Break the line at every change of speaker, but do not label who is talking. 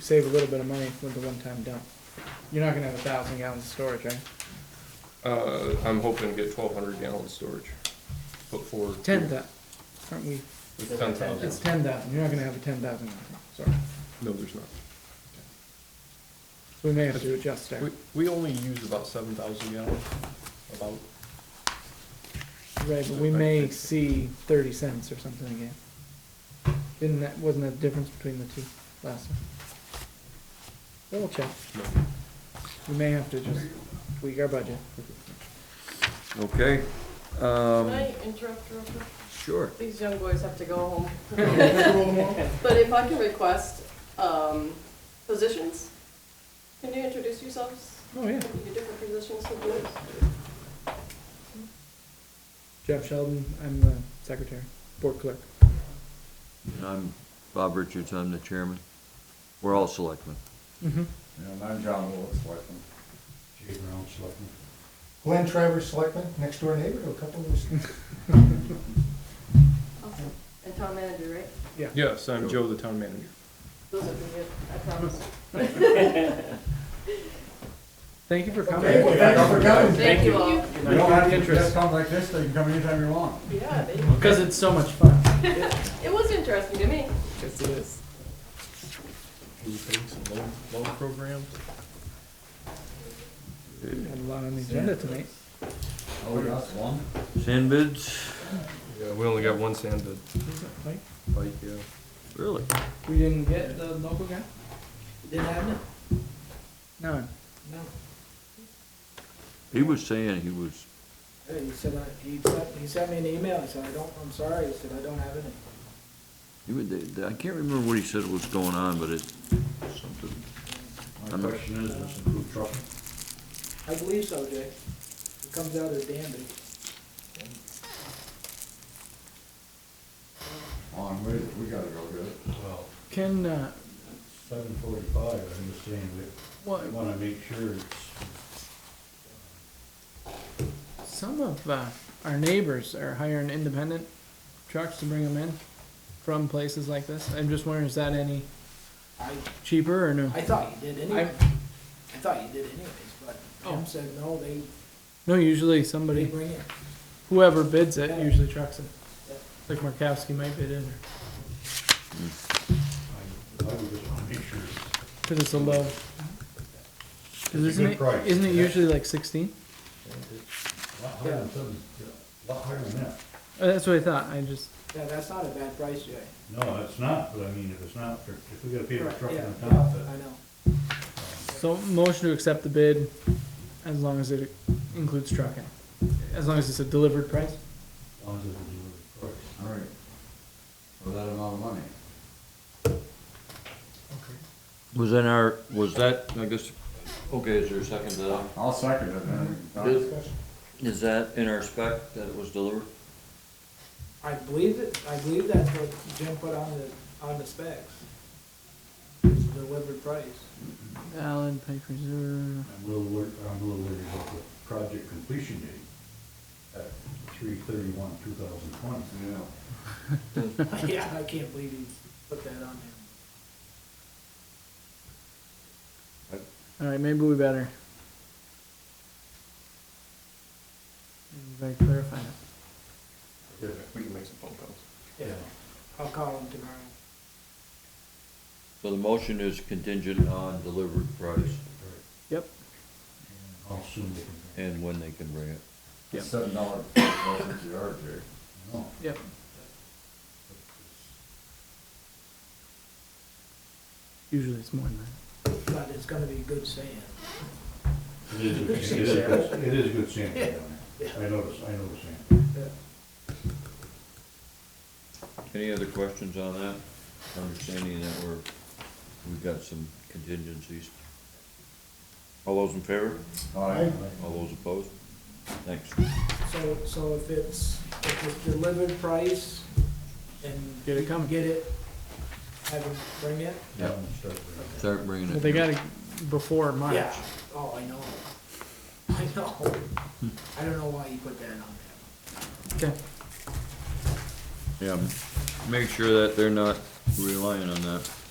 save a little bit of money with the one-time dump. You're not gonna have a thousand gallons of storage, right?
Uh, I'm hoping to get twelve hundred gallon storage. Put forward.
Ten thou, aren't we,
It's ten
it's
thousand.
ten thousand, you're not gonna have a ten thousand gallon, tank, sorry.
No, there's not.
So we may have to adjust there.
We, we only use about seven thousand gallons, about.
Right, but we may see thirty cents or something again. Didn't that, wasn't that the difference between the two last time? Double check,
no.
we may have to just tweak our budget.
Okay,
Can
um,
I interrupt real quick?
sure.
These young boys have to go home. But if I can request, um, positions, can you introduce yourselves?
Oh, yeah.
Your different positions for boards?
Jeff Sheldon, I'm the secretary, board clerk.
I'm Bob Richards, I'm the chairman. We're all selectmen.
Mm-hmm.
And I'm John Willis, selectman.
Jay Brown, Selectman.
Glenn Travers, selectman, next door neighbor to a couple of those.
Awesome. And town manager, right?
Yes, I'm Joe, the town manager.
Those are good, I promise.
Thank you for
Hey,
coming.
well, thanks for coming.
Thank you all.
You don't have to just come like this, so you can come anytime you want.
Yeah, they-
Because it's so much fun.
it was interesting to me.
Yes, it is.
Food banks and loan, loan programs.
Got a lot on the agenda tonight.
Oh, that's one.
Sand bids?
Yeah, we only got one sand bid.
Mike?
Like, yeah.
Really?
We didn't get the local guy?
Didn't have it?
No.
No.
He was saying he was,
Hey, He said, I- he sent, he sent me an email, he said, I don't, I'm sorry, he said, I don't have any.
he would, I can't remember what he said was going on, but it, something. I'm
My
not-
question is, is the food truck,
I believe so, Jay. It comes out of Danby.
on, we, we gotta go get it.
Well,
Can, uh,
seven forty-five, I understand,
what,
we wanna make sure it's,
some of, uh, our neighbors are hiring independent trucks to bring them in from places like this. I'm just wondering, is that any
I,
cheaper or no?
I thought you did anyway.
I'm-
I thought you did anyways, but
Oh.
Tim said, no, they,
No, usually
they
somebody,
bring it.
whoever bids it usually trucks it.
Yeah.
Like Markowski might bid in there,
I, I would just wanna make sure it's.
cause it's a low. Cause
a
isn't
good
it,
price.
isn't it usually like sixteen?
A lot higher than seven, a lot higher than that.
Oh, that's what I thought, I just,
Yeah, that's not a bad price, Jay.
No, it's not, but I mean, if it's not, for- if we gotta pay for
Right,
truck
yeah,
on
I
top, but
know.
so motion to accept the bid as long as it includes trucking. As long as it's a delivered price.
as long as it's a delivery price.
All right. For that amount of money.
Was in our, was that, I guess, okay, is there a second to that?
I'll second it then.
Good. Is that in our spec that it was delivered?
I believe it, I believe that's what Jim put on the, on the specs. It's delivered price.
Allen Pike Reserve.
I'm a little worried, I'm a little worried about the project completion date at three thirty-one, two thousand twenty.
Yeah.
Yeah, I can't believe he put that on there.
All right, maybe we better. Maybe we better clarify that.
Yeah, we can make some phone calls.
Yeah, I'll call him tomorrow.
So the motion is contingent on delivered price
Yep.
I'll assume they can.
and when they can bring it.
Yeah.
Seven dollar, that's your yard, Jay.
No.
Yep. Usually it's more than that.
But it's gonna be good sand.
It is, good- it is, good- it is good sand down there. I noticed, I noticed sand.
Any other questions on that? Understanding that we're, we've got some contingencies. All those in favor?
All right.
All those opposed? Thanks.
So, so if it's, if it's delivered price and.
Get it coming.
Get it, have them bring it?
Yep.
Start with-
Start bringing it.
But they got it before March.
Yeah, oh, I know. I know. I don't know why you put that on there.
Okay.
Yeah, m- make sure that they're not relying on that.